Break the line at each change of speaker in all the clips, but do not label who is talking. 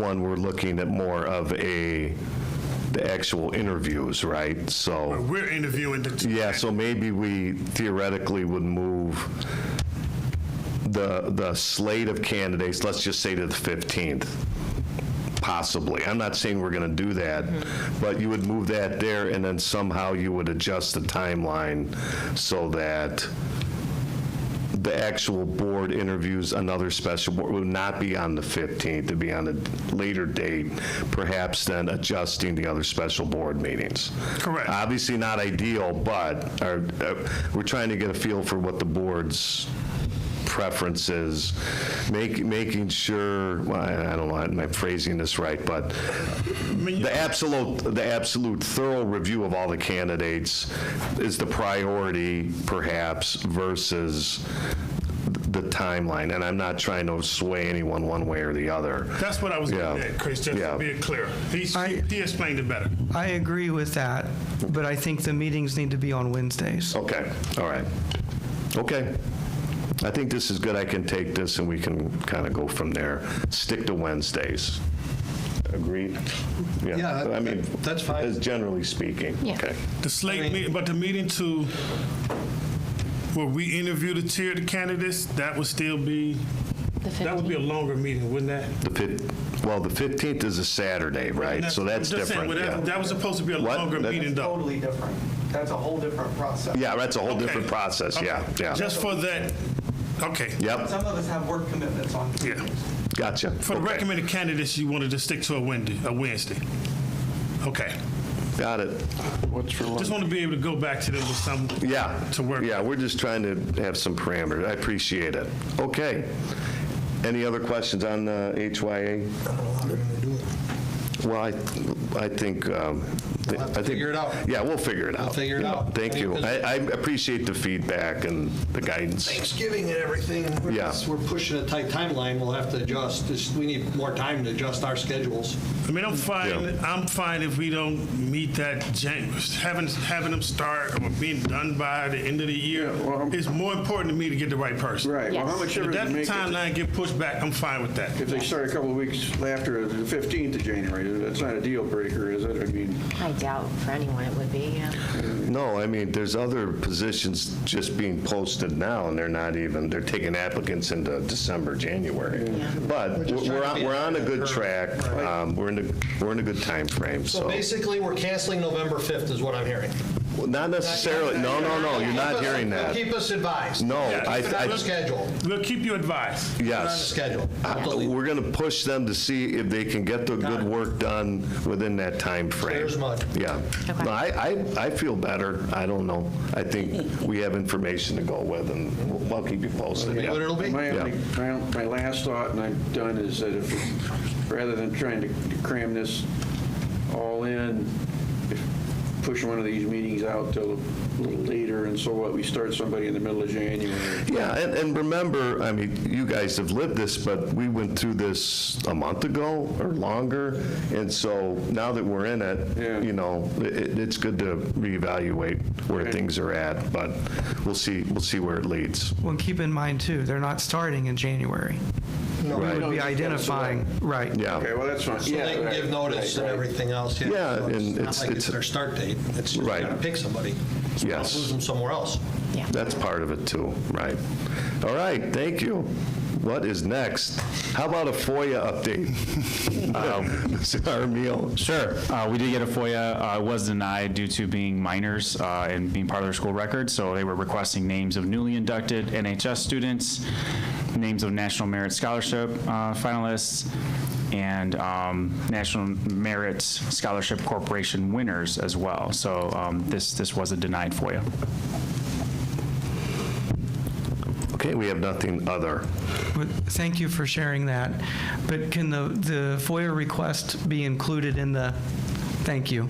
one, we're looking at more of a, the actual interviews, right? So,
We're interviewing the.
yeah, so maybe we theoretically would move the, the slate of candidates, let's just say to the 15th, possibly. I'm not saying we're going to do that, but you would move that there, and then somehow you would adjust the timeline so that the actual board interviews another special board would not be on the 15th, it'd be on a later date, perhaps then adjusting the other special board meetings.
Correct.
Obviously not ideal, but our- uh, we're trying to get a feel for what the board's preference is, make- making sure, well, I I don't know, am I phrasing this right, but the absolute, the absolute thorough review of all the candidates is the priority perhaps versus the timeline. And I'm not trying to sway anyone one way or the other.
That's what I was getting
Yeah.
at, Chris, just
Yeah.
to be clear. He,
I-
he explained it better.
I agree with that, but I think the meetings need to be on Wednesdays.
Okay, all right. Okay. I think this is good. I can take this and we can kind of go from there. Stick to Wednesdays. Agreed?
Yeah,
I mean,
that's fine.
As generally speaking.
Yeah.
Okay.
The slate meeting, but the meeting to, where we interview the tier of the candidates, that would still be,
The
that would be
15th.
a longer meeting, wouldn't that?
The fif, well, the 15th is a Saturday, right? So that's
I'm just
different,
saying, well, that-
yeah.
That was supposed to be a
What?
longer
That's-
meeting, though.
Totally different. That's a whole different process.
Yeah, that's a whole
Okay.
different process, yeah,
Okay.
yeah.
Just for that, okay.
Yep,
of us have work commitments on
Yeah.
gotcha.
For the
Okay.
recommended candidates, you wanted to stick to a Wednesday, a Wednesday. Okay.
Got it,
Just want to be able to go back to them with some.
yeah.
To work.
Yeah, we're just trying to have some parameters, I appreciate it. Okay. Any other questions on uh, HYA? Well, I, I think, um, I
have to
think.
figure it out.
Yeah, we'll figure it out.
figure it out.
Thank you, I, I appreciate the feedback and the guidance.
Thanksgiving and everything. we're
Yeah.
just- We're pushing a tight timeline, we'll have to adjust, Just- we need more time to adjust our schedules.
I mean, I'm fine.
Yeah.
I'm fine if we don't meet that. Jan- having having them start or being done by the end of the year
well, I'm-
is more important to me to get the right person.
Right, well, how much
If
difference
that
does it make if-
timeline get pushed back, I'm fine with that.
if they start a couple of weeks after the 15th of January? That's not a deal breaker, is it? I mean,
I doubt for anyone it would be, yeah.
No, I mean, there's other positions just being posted now, and they're not even, they're taking applicants into December, January. But
just
we're
trying to
on,
be
we're on a
ahead of
good
the
track, um, we're in a, we're in a good timeframe,
So
so.
basically, we're canceling November 5th is what I'm hearing.
Well, Not necessarily, no, no, no, you're not hearing that.
Keep us advised.
No,
Yeah,
I,
Keep it on the
I,
schedule, Keep
We'll keep you advised.
it on the
yes.
schedule.
I- We're going to push them to see if they can get the good work done within that timeframe.
Clear as mud.
Yeah.
Okay.
No, I, I, I feel better. I don't know. I think we have information to go with, and we'll- I'll keep you posted.
Be
yeah.
What it'll be.
my,
Yeah.
only- my own- my last thought, and I'm done, is that if, rather than trying to cram this all in, if- push one of these meetings out till a little later, and so what, we start somebody in the middle of January.
Yeah, and, and remember, I mean, you guys have lived this, but we went through this a month ago or longer, and so now that we're in
Yeah.
it, you know, it, it's good to reevaluate where
Okay.
things are at, but we'll see, we'll see where it leads.
Well, keep in mind too, they're not starting in January.
Right.
We'll be identifying, right.
Okay,
Yeah,
well, that's fine.
So
Yeah,
they can
right,
give notice
right,
and
right.
everything else.
Yeah,
So
and
It's
it's-
not like
it's
it's
a-
their start date, it's just
Right.
gotta pick somebody.
Yes.
Lose them somewhere else.
that's part of it too, right. All right, thank you. What is next? How about a FOIA update? Um, Mr. Armiel?
Sure. Uh, we did get a FOIA. Uh, it was denied due to being minors uh, and being part of their school record. So they were requesting names of newly inducted NHS students, names of National Merit Scholarship uh, finalists, and um, National Merit Scholarship Corporation winners as well. So um, this this was a denied FOIA.
Okay, we have nothing other.
But Thank you for sharing that. But can the, the FOIA request be included in the, thank you?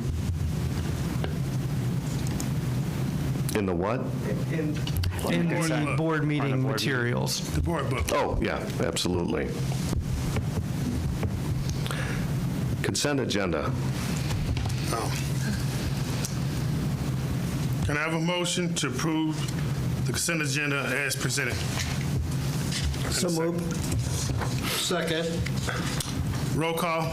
In the what?
In the board meeting materials.
The board book.
Oh, yeah, absolutely. Consent agenda.
Can I have a motion to approve the consent agenda as presented?
Second,
Roll call.